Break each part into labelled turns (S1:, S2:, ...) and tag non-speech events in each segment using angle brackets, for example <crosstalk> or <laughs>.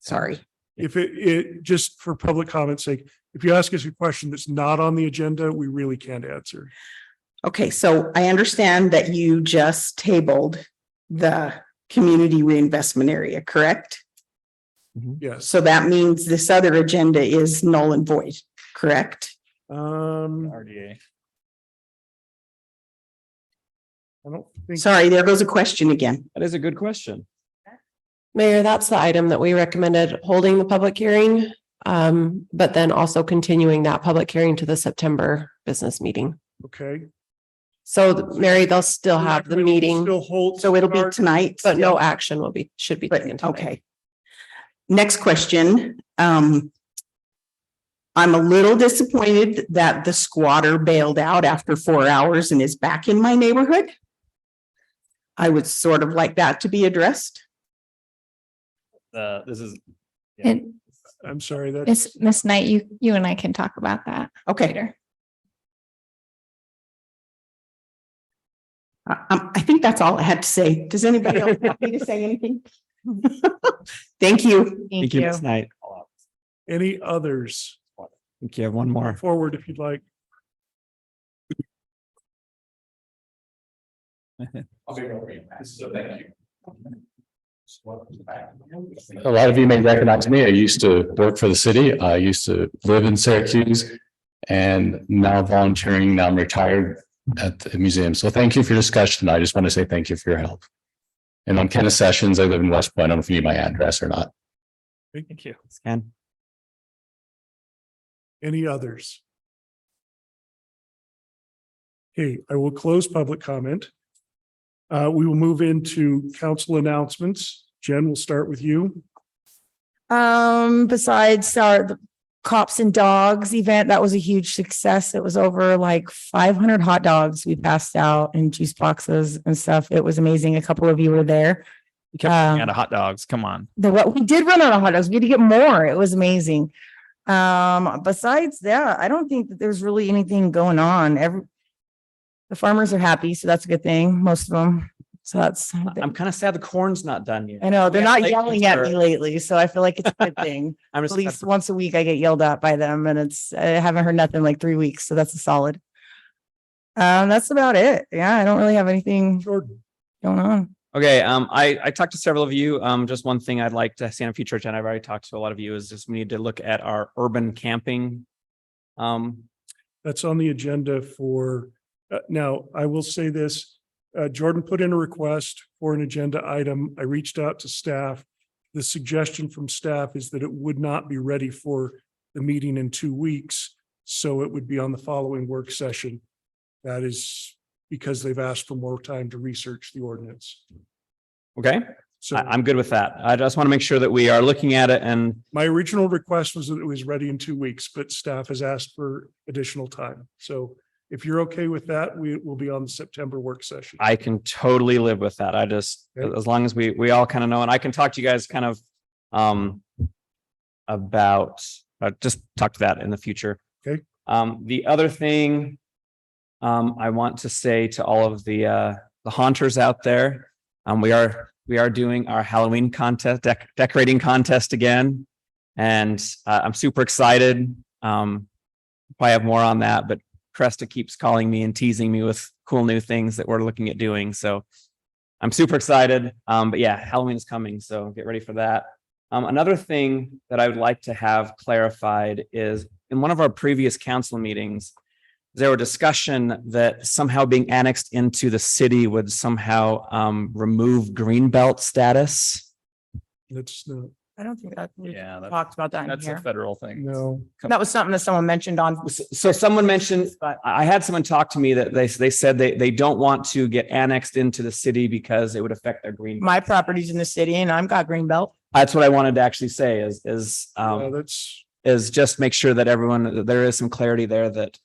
S1: Sorry.
S2: If it, it, just for public comment sake, if you ask us a question that's not on the agenda, we really can't answer.
S1: Okay, so I understand that you just tabled the community reinvestment area, correct?
S3: Mm-hmm.
S2: Yes.
S1: So that means this other agenda is null and void, correct?
S2: Um,
S3: RDA.
S2: I don't think,
S1: Sorry, there goes a question again.
S3: That is a good question.
S4: Mayor, that's the item that we recommended holding the public hearing, um, but then also continuing that public hearing to the September business meeting.
S2: okay.
S4: So Mary, they'll still have the
S2: Recommending
S4: meeting,
S2: Still hold.
S1: So it'll be tonight.
S4: but no action will be, should be taken
S1: But,
S4: tonight.
S1: okay. Next question, um. I'm a little disappointed that the squatter bailed out after four hours and is back in my neighborhood. I would sort of like that to be addressed.
S3: Uh, this is, Yeah.
S5: And
S2: I'm sorry, that,
S5: Miss, Miss Knight, you, you and I can talk about that
S1: Okay,
S5: later.
S1: I, I'm- Uh, um, I think that's all I had to say. Does anybody else want me to say
S6: <laughs>
S1: anything? Thank you.
S3: thank you, Ms. Knight.
S2: any others
S3: Thank you. have one more.
S2: forward if you'd like?
S7: A lot of you may recognize me. I used to work for the city. I used to live in Syracuse and now volunteering, now I'm retired at the museum. So thank you for your discussion. I just want to say thank you for your help. And I'm Kenneth Sessions. I live in West Point. I don't know if you need my address or not.
S3: Thank you. Scan.
S2: Any others? Okay, I will close public comment. Uh, we will move into council announcements. Jen, we'll start with you.
S6: Um, besides our the cops and dogs event, that was a huge success. It was over like five hundred hot dogs we passed out and juice boxes and stuff. It was amazing. A couple of you were there.
S3: You kept running
S6: Um,
S3: out of hot dogs. Come on.
S6: The what we did run out of hot dogs. We had to get more. It was amazing. Um, besides that, I don't think that there's really anything going on. Every the farmers are happy, so that's a good thing. Most of them. So that's
S3: I'm kind of sad the corn's not done yet.
S6: I know they're
S3: Yeah,
S6: not
S3: like,
S6: yelling at me
S3: sure.
S6: lately, so I feel like it's a good thing.
S3: I'm
S6: at
S3: just,
S6: least once a week I get yelled at by them and it's, I haven't heard nothing in, like three weeks. So that's a solid. Um, that's about it. Yeah. I don't really have anything
S2: Jordan,
S6: going on.
S3: Okay, um, I, I talked to several of you. Um, just one thing I'd like to see on a future agenda, I've already talked to a lot of you, is just we need to look at our urban camping. Um,
S2: that's on the agenda for, uh, now, I will say this. Uh, Jordan put in a request for an agenda item. I reached out to staff. The suggestion from staff is that it would not be ready for the meeting in two weeks. So it would be on the following work session. That is because they've asked for more time to research the ordinance.
S3: okay,
S2: So
S3: I, I'm good with that. I just want to make sure that we are looking at it and
S2: my original request was that it was ready in two weeks, but staff has asked for additional time. So if you're okay with that, we will be on the September work session.
S3: I can totally live with that. I just,
S2: Okay.
S3: as long as we, we all kind of know, and I can talk to you guys kind of, um, about, uh, just talk to that in the future.
S2: Okay.
S3: Um, the other thing, um, I want to say to all of the, uh, the haunters out there, um, we are, we are doing our Halloween contest, dec- decorating contest again. And, uh, I'm super excited. Um, probably have more on that, but Cresta keeps calling me and teasing me with cool new things that we're looking at doing. So I'm super excited. Um, but yeah, Halloween is coming, so get ready for that. Um, another thing that I would like to have clarified is in one of our previous council meetings, there were discussion that somehow being annexed into the city would somehow um, remove green belt status.
S2: That's not,
S6: I don't think that we
S3: Yeah, that's-
S6: talked about that in here.
S3: federal thing.
S2: no,
S6: That was something that someone mentioned on.
S3: So so someone mentioned, I I had someone talk to me that they, they said they, they don't want to get annexed into the city because it would affect their green.
S6: My property's in the city and I've got green belt.
S3: That's what I wanted to actually say is, is,
S2: no,
S3: um,
S2: that's,
S3: is just make sure that everyone, that there is some clarity there that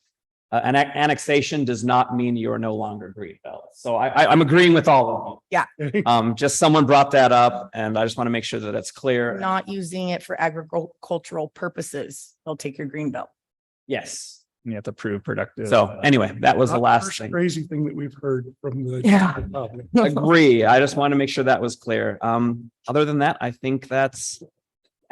S3: uh, an annexation does not mean you're no longer green belt. So I, I, I'm agreeing with all of them. Um, just someone brought that up and I just want to make sure that it's
S6: We're
S3: clear.
S6: Not using it for agricultural purposes. They'll take your green belt.
S3: Yes.
S8: You have to prove productive. uh,
S3: So anyway, that was the
S2: not
S3: last
S2: first
S3: thing.
S2: Crazy thing that we've heard from the.
S6: Yeah.
S2: the public.
S3: Agree. I just want to make sure that was clear. Um, other than that, I think that's